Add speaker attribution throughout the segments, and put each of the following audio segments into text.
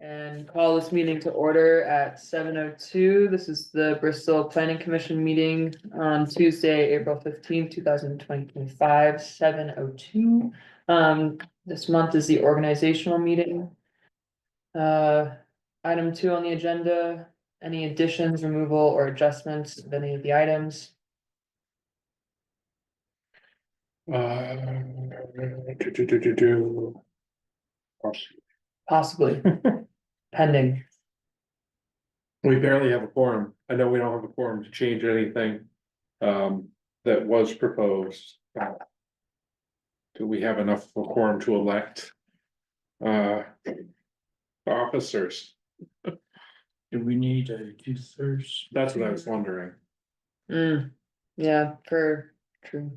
Speaker 1: And call this meeting to order at seven oh two. This is the Bristol Planning Commission meeting on Tuesday, April fifteenth, two thousand twenty five, seven oh two. Um, this month is the organizational meeting. Uh, item two on the agenda, any additions, removal or adjustments of any of the items?
Speaker 2: Uh, do, do, do, do, do.
Speaker 1: Possibly pending.
Speaker 2: We barely have a quorum. I know we don't have a quorum to change anything. Um, that was proposed. Do we have enough of a quorum to elect? Uh. Officers,
Speaker 3: Do we need a two thirds?
Speaker 2: that's what I was wondering.
Speaker 1: Hmm, yeah, for, true.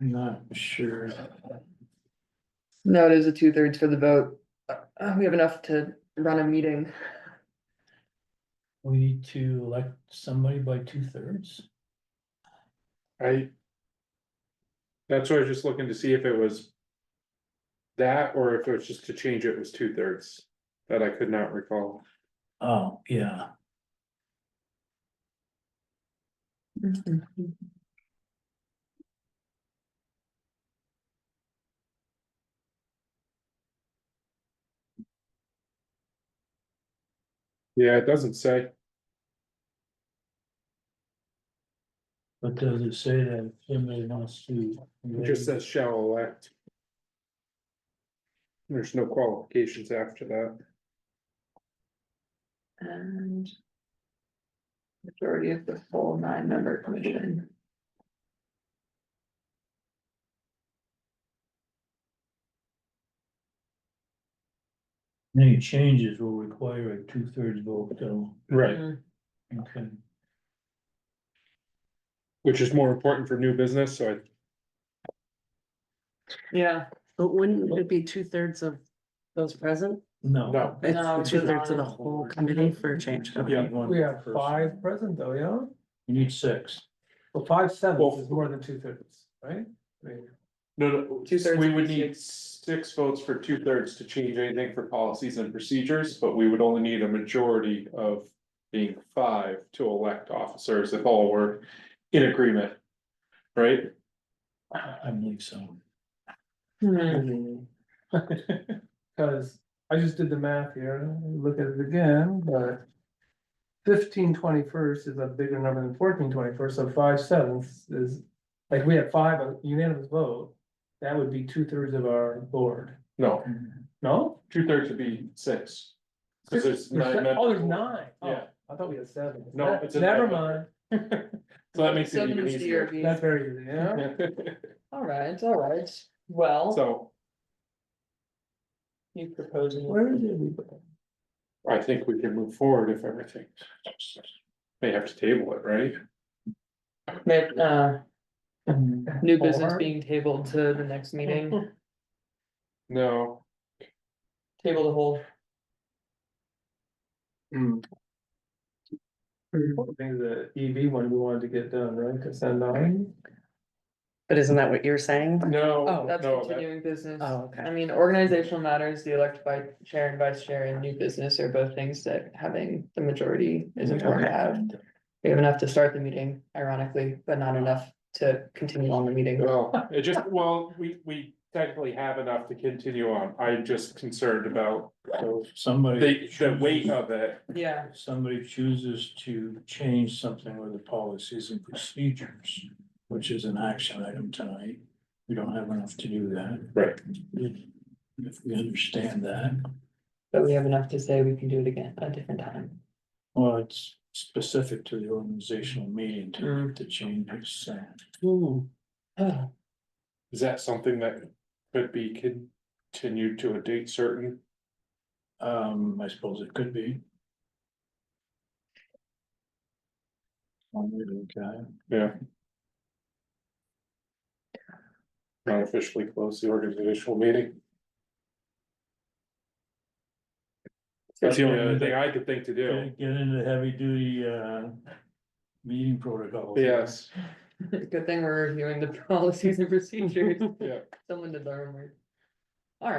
Speaker 3: I'm Not sure.
Speaker 1: No, it is a two thirds for the vote. Uh, we have enough to run a meeting.
Speaker 3: We need to elect somebody by two thirds?
Speaker 2: I. That's why I was just looking to see if it was. That or if it was just to change it was two thirds. That I could not recall.
Speaker 3: Oh, yeah.
Speaker 2: Yeah, it doesn't say.
Speaker 3: But does it say that if somebody wants to?
Speaker 2: It just says shall elect. There's no qualifications after that.
Speaker 1: And. Majority of the full nine member commission.
Speaker 3: Any changes will require a two thirds vote though.
Speaker 2: Right.
Speaker 3: Okay.
Speaker 2: Which is more important for new business, so I,
Speaker 1: Yeah.
Speaker 4: But wouldn't it be two thirds of those present? Um,
Speaker 3: No.
Speaker 2: no,
Speaker 1: No, it's
Speaker 4: It's two thirds of the
Speaker 1: not.
Speaker 4: whole committee for a change. Okay.
Speaker 2: Yeah.
Speaker 5: We have five present though, yeah?
Speaker 3: You need six.
Speaker 5: Well,
Speaker 2: Well-
Speaker 5: five sevenths is more than two thirds, right? I mean,
Speaker 2: no, no,
Speaker 1: Two-thirds
Speaker 2: we
Speaker 1: of
Speaker 2: would
Speaker 1: the
Speaker 2: need six votes for two thirds to change anything for policies and procedures, but we would only need a majority of. Being five to elect officers if all were in agreement. Right?
Speaker 3: I believe so.
Speaker 1: Hmm,
Speaker 5: Cause I just did the math here, let me look at it again, but. Fifteen twenty first is a bigger number than fourteen twenty first, so five sevenths is, like, we have five on unanimous vote. That would be two thirds of our board,
Speaker 2: No,
Speaker 5: no?
Speaker 2: two thirds would be six. Cause there's nine members.
Speaker 5: Oh, there's nine. Oh,
Speaker 2: Yeah.
Speaker 5: I thought we had seven.
Speaker 2: No, it's a
Speaker 5: Never
Speaker 2: nine.
Speaker 5: mind,
Speaker 2: So that makes it
Speaker 1: Seven
Speaker 2: even
Speaker 1: is the
Speaker 2: easier.
Speaker 1: RV.
Speaker 5: that's very easy, yeah?
Speaker 1: All right, all right. Well,
Speaker 2: So
Speaker 1: you proposing.
Speaker 5: Where is it?
Speaker 2: I think we can move forward if everything. May have to table it, right?
Speaker 1: Make, uh,
Speaker 5: Mm-hmm.
Speaker 1: new business
Speaker 5: Or-
Speaker 1: being tabled to the next meeting,
Speaker 2: No,
Speaker 1: table the whole,
Speaker 5: I think the EV one we wanted to get done, right, to send on.
Speaker 4: But isn't that what you're saying?
Speaker 2: no,
Speaker 4: Oh,
Speaker 1: that's
Speaker 2: no, that-
Speaker 1: continuing business.
Speaker 4: Oh,
Speaker 1: I
Speaker 4: okay.
Speaker 1: mean, organizational matters, the elect by chair and vice chair and new business are both things that having the majority is important to have. We have enough to start the meeting ironically, but not enough to continue on the meeting.
Speaker 2: well, it just, well, we, we technically have enough to continue on. I'm just concerned about
Speaker 3: Somebody.
Speaker 2: the, the weight of it.
Speaker 1: Yeah.
Speaker 3: If Somebody chooses to change something with the policies and procedures, which is an action item tonight. We don't have enough to do that.
Speaker 2: Right.
Speaker 3: If we understand that,
Speaker 1: But we have enough to say we can do it again a different time.
Speaker 3: well, it's specific to the organizational meeting to, to change it, so. Ooh.
Speaker 1: Oh,
Speaker 2: Is that something that could be continued to a date certain?
Speaker 3: Um, I suppose it could be. Okay,
Speaker 2: Yeah. Not officially close the organizational meeting. That's the only other thing I could think to do.
Speaker 3: get into heavy duty, uh, meeting protocol.
Speaker 2: Yes,
Speaker 1: good thing we're reviewing the policies and procedures.
Speaker 2: Yeah.
Speaker 1: Someone did the homework.